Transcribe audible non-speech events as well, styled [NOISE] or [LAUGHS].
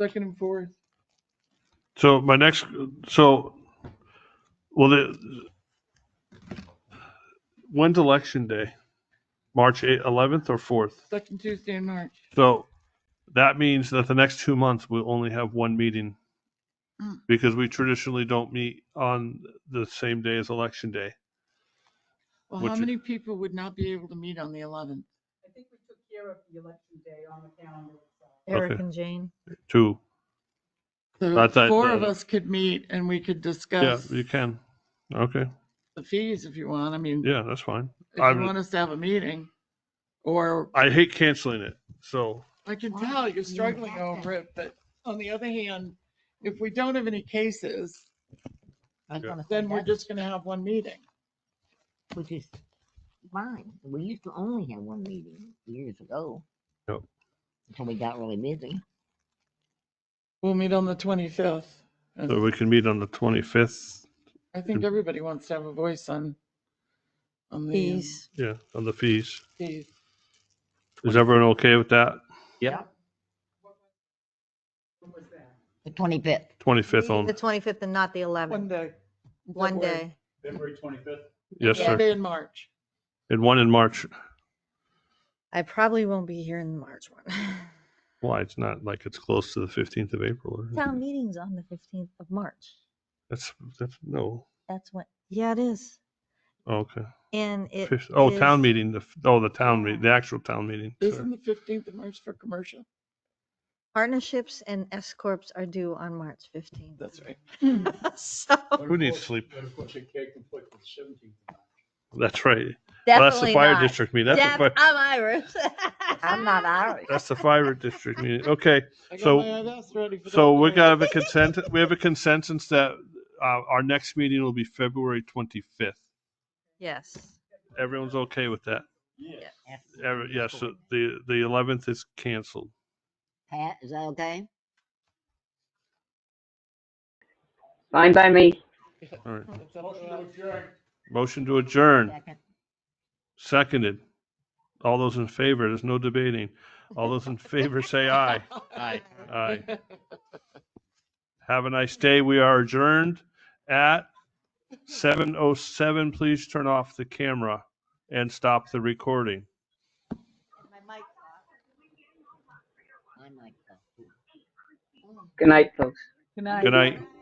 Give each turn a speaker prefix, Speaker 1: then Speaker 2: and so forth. Speaker 1: second and fourth.
Speaker 2: So my next, so, well, the, when's election day? March eight- 11th or 4th?
Speaker 1: Second Tuesday in March.
Speaker 2: So that means that the next two months we'll only have one meeting
Speaker 1: Mm.
Speaker 2: because we traditionally don't meet on the same day as election day.
Speaker 1: Well,
Speaker 2: Which
Speaker 1: how
Speaker 2: is-
Speaker 1: many people would not be able to meet on the eleventh?
Speaker 3: I think we took care of the election day on the calendar. itself.
Speaker 2: Eric
Speaker 4: Eric and Jane.
Speaker 2: Two.
Speaker 1: So
Speaker 2: That's- that-
Speaker 1: four of
Speaker 2: that-
Speaker 1: us could meet and we could
Speaker 2: Yeah,
Speaker 1: discuss
Speaker 2: you can. Okay.
Speaker 1: the fees if you want. I mean,
Speaker 2: Yeah, that's fine.
Speaker 1: if you
Speaker 2: I'm-
Speaker 1: want us to have a meeting. Or
Speaker 2: I hate canceling it. So
Speaker 1: I can
Speaker 4: Why?
Speaker 1: tell
Speaker 4: You
Speaker 1: you're struggling
Speaker 4: have to.
Speaker 1: over it, but on the other hand, if we don't have any cases,
Speaker 4: I was
Speaker 2: Yeah.
Speaker 4: gonna say,
Speaker 1: then we're
Speaker 4: that's-
Speaker 1: just gonna have one meeting.
Speaker 4: Which is fine. We used to only have one meeting years ago.
Speaker 2: Yep.
Speaker 4: Until we got really busy.
Speaker 1: We'll meet on the twenty-fifth.
Speaker 2: so we can meet on the 25th.
Speaker 1: I
Speaker 2: Mm.
Speaker 1: think everybody wants to have a voice on, on the um,
Speaker 4: Fees.
Speaker 2: Yeah, on the fees.
Speaker 1: fees.
Speaker 2: Is everyone okay with that?
Speaker 3: When was that?
Speaker 4: The twenty-fifth.
Speaker 2: 25th
Speaker 5: The
Speaker 2: on,
Speaker 5: 25th and not the 11th,
Speaker 1: One day.
Speaker 5: one
Speaker 1: February.
Speaker 5: day.
Speaker 6: February twenty-fifth.
Speaker 2: yes,
Speaker 1: One
Speaker 2: sir.
Speaker 1: day in March.
Speaker 2: And one in March.
Speaker 5: I probably won't be here in the March one. [LAUGHS]
Speaker 2: Why? It's not like it's close to the 15th of April. or-
Speaker 5: Town meeting's on the 15th of March.
Speaker 2: That's, that's, no. oh,
Speaker 5: That's what, yeah, it is.
Speaker 2: Okay.
Speaker 5: And it
Speaker 2: Fif- Oh, town
Speaker 5: is-
Speaker 2: meeting, the, f- oh, the town meeting, the actual town meeting. sorry.
Speaker 1: Isn't the fifteenth of March for commercial?
Speaker 5: Partnerships and S corps are due on March 15th.
Speaker 1: That's right.
Speaker 5: [LAUGHS] So
Speaker 2: Who needs sleep?
Speaker 6: But of course, it can't conflict with seventeenth.
Speaker 2: That's right. Well, That's the
Speaker 5: definitely
Speaker 2: fire
Speaker 5: not.
Speaker 2: district meeting. That's the,
Speaker 5: Def-
Speaker 2: fi-
Speaker 5: I'm Irish. [LAUGHS]
Speaker 4: I'm not Irish.
Speaker 2: that's the fire district meeting. Okay.
Speaker 1: I got
Speaker 2: So-
Speaker 1: my IRS ready for
Speaker 2: So
Speaker 1: that
Speaker 2: we
Speaker 1: one.
Speaker 2: got to have a consent, we have a consensus that, uh, our next meeting will be February 25th.
Speaker 5: Yes.
Speaker 2: Everyone's okay with that?
Speaker 6: Yeah.
Speaker 2: Every- Yes, so the, the 11th is canceled.
Speaker 4: Pat, is that okay?
Speaker 7: Fine by me.
Speaker 2: All right.
Speaker 1: That's up to us.
Speaker 2: Motion to adjourn.
Speaker 4: Second.
Speaker 2: Seconded. All those in favor, there's no debating. All those in favor say aye.
Speaker 1: Aye.
Speaker 2: Aye. Have a nice day. We are adjourned at 7:07. Please turn off the camera and stop the recording.
Speaker 4: I might go. uh,
Speaker 7: Good night, folks.
Speaker 2: Good night.